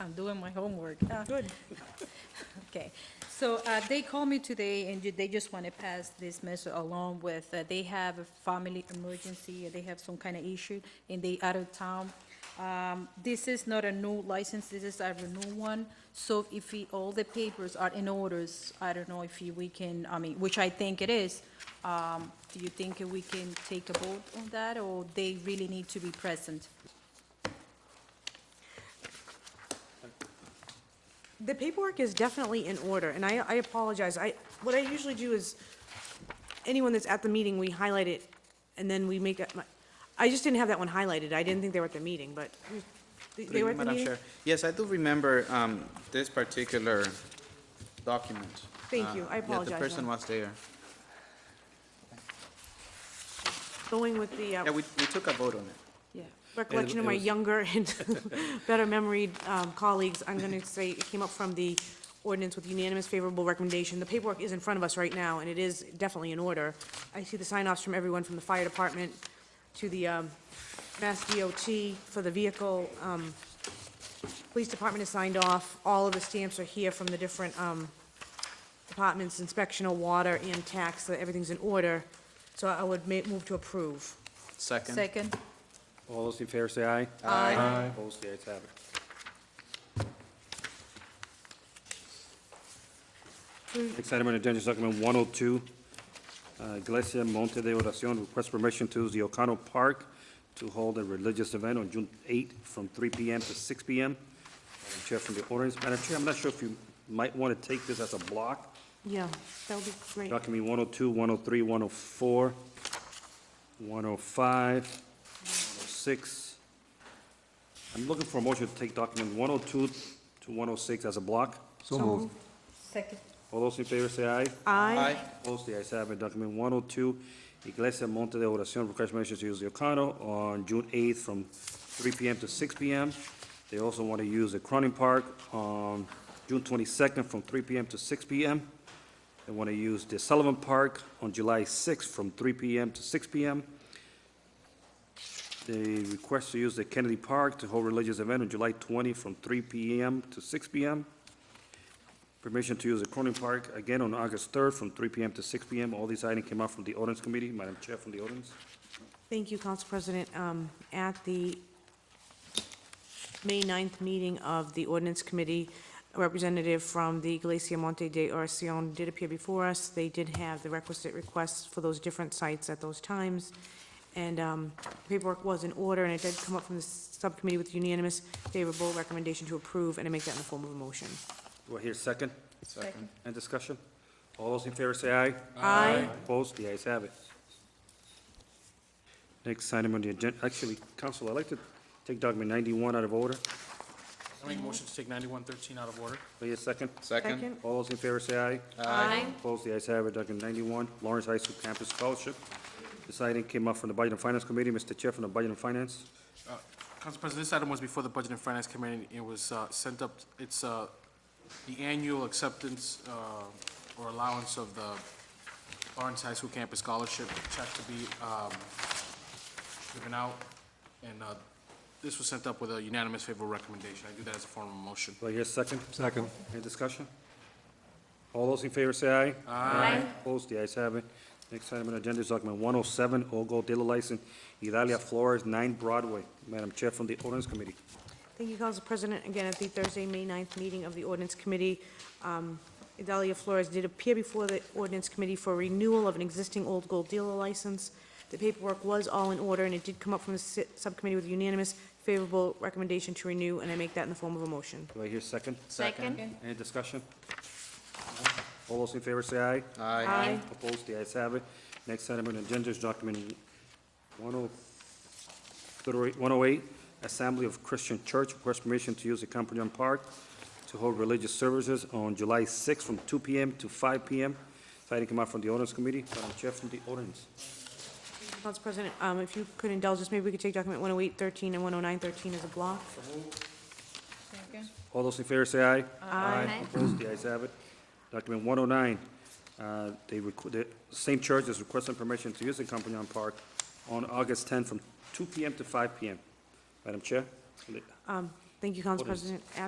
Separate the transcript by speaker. Speaker 1: I'm doing my homework. Uh,
Speaker 2: Good.
Speaker 1: Okay, so uh, they called me today, and ju- they just want to pass this message along with, uh, they have a family emergency, they have some kind of issue, and they out of town. Um, This is not a new license, this is a renewal one, so if we, all the papers are in orders, I don't know if you- we can, I mean, which I think it is, um, do you think we can take a vote on that, or they really need to be present?
Speaker 2: The paperwork is definitely in order, and I, I apologize. I, what I usually do is, anyone that's at the meeting, we highlight it, and then we make, up my- I just didn't have that one highlighted. I didn't think they were at the meeting, but they-
Speaker 3: Good
Speaker 2: they were at the
Speaker 3: evening, Madam
Speaker 2: meeting?
Speaker 3: Chair. Yes, I do remember um, this particular document.
Speaker 2: Thank
Speaker 3: Uh,
Speaker 2: you. I
Speaker 3: Yeah,
Speaker 2: apologize,
Speaker 3: the person was there.
Speaker 2: Going with the
Speaker 3: Yeah,
Speaker 2: uh,
Speaker 3: we we took a vote on it.
Speaker 2: recollection of
Speaker 4: It- it
Speaker 2: my
Speaker 4: was-
Speaker 2: younger and better-memoried colleagues, I'm going to say it came up from the ordinance with unanimous favorable recommendation. The paperwork is in front of us right now, and it is definitely in order. I see the sign-offs from everyone, from the fire department to the um, Mass DOT for the vehicle. um, Police department has signed off. All of the stamps are here from the different um, departments, inspectional, water, and tax, so everything's in order. So I would ma- move to approve.
Speaker 3: Second.
Speaker 1: Second?
Speaker 4: All those in favor say aye.
Speaker 3: Aye.
Speaker 4: Opposed, the ayes have it. Next item on the agenda is document 102, uh, Iglesia Monte de Oración requests permission to use the O'Connell Park to hold a religious event on June 8 from 3 PM to 6 PM. Madam Chair from the ordinance, Madam Chair, I'm not sure if you might want to take this as a block,
Speaker 2: Yeah, that would be great.
Speaker 4: document 102, 103, 104, 105, 106. I'm looking for a motion to take document 102 to 106 as a block.
Speaker 5: So moved.
Speaker 1: Second.
Speaker 4: All those in favor say aye.
Speaker 2: Aye.
Speaker 3: Aye.
Speaker 4: Opposed, the ayes have it. Document 102, Iglesia Monte de Oración requests permission to use the Ocano on June 8th from 3 PM to 6 PM. They also want to use the Cronin Park on June 22nd from 3 PM to 6 PM. They want to use the Sullivan Park on July 6th from 3 PM to 6 PM. They request to use the Kennedy Park to hold religious event on July 20 from 3 PM to 6 PM. Permission to use the Cronin Park again on August 3rd from 3 PM to 6 PM. All these items came out from the ordinance committee. Madam Chair, from the ordinance.
Speaker 2: Thank you, Council President. Um, At the May 9th meeting of the ordinance committee, a representative from the Iglesia Monte de Oración did appear before us. They did have the requisite requests for those different sites at those times, and um, paperwork was in order, and it did come up from the subcommittee with unanimous favorable recommendation to approve, and I make that in the form of a motion.
Speaker 4: Do I hear a second?
Speaker 1: Second.
Speaker 4: End discussion? All those in favor say aye.
Speaker 2: Aye.
Speaker 4: Opposed? The ayes have it. Next item on the agenda, actually, Council, I'd like to take document 91 out of order.
Speaker 6: I make a motion to take ninety-one thirteen out of order.
Speaker 4: Do I hear a second?
Speaker 3: Second.
Speaker 4: All those in favor say aye.
Speaker 2: Aye.
Speaker 4: Opposed, the ayes have it, document 91, Lawrence High School Campus Scholarship. This item came up from the Budget and Finance Committee, Mr. Chair from the Budget and Finance.
Speaker 6: Uh, Council President, this item was before the Budget and Finance Committee. It was uh, sent up, it's uh, the annual acceptance uh, or allowance of the Lawrence High School Campus Scholarship check to be um, given out. And uh, this was sent up with a unanimous favorable recommendation. I do that as a form of motion.
Speaker 4: Do I hear a second?
Speaker 5: Second.
Speaker 4: Any discussion? All those in favor say aye. Aye. Opposed, the ayes have it. Next item on the agenda is document 107, Ogo Dealer License, Idalia Flores, 9 Broadway. Madam Chair from the Ordinance Committee.
Speaker 2: Thank you, Council President. Again, at the Thursday, May 9th meeting of the ordinance committee, um, Idalia Flores did appear before the ordinance committee for renewal of an existing old gold dealer license. The paperwork was all in order, and it did come up from the si- subcommittee with unanimous favorable recommendation to renew, and I make that in the form of a motion.
Speaker 4: Do I hear a second?
Speaker 1: Second.
Speaker 4: Any discussion? All those in favor say aye.
Speaker 3: Aye.
Speaker 2: Aye.
Speaker 4: Opposed, the ayes have it. Next item on the agenda is document oh, 103 108, Assembly of Christian Church, request permission to use the Campanian Park to hold religious services on July 6th from 2 PM to 5 PM. This item came out from the ordinance committee. Madam Chair from the ordinance.
Speaker 2: Council President, um, if you could indulge us, maybe we could take document 10813 and 10913 as a block.
Speaker 1: Second.
Speaker 4: All those in favor say aye. Aye. Opposed, the ayes have it. Document 109, uh, they, requ- the same church is requesting permission to use the Compagnon Park on August 10 from 2 PM to 5 PM. Madam Chair?
Speaker 2: Thank you, Council
Speaker 4: Ordinance.
Speaker 2: President.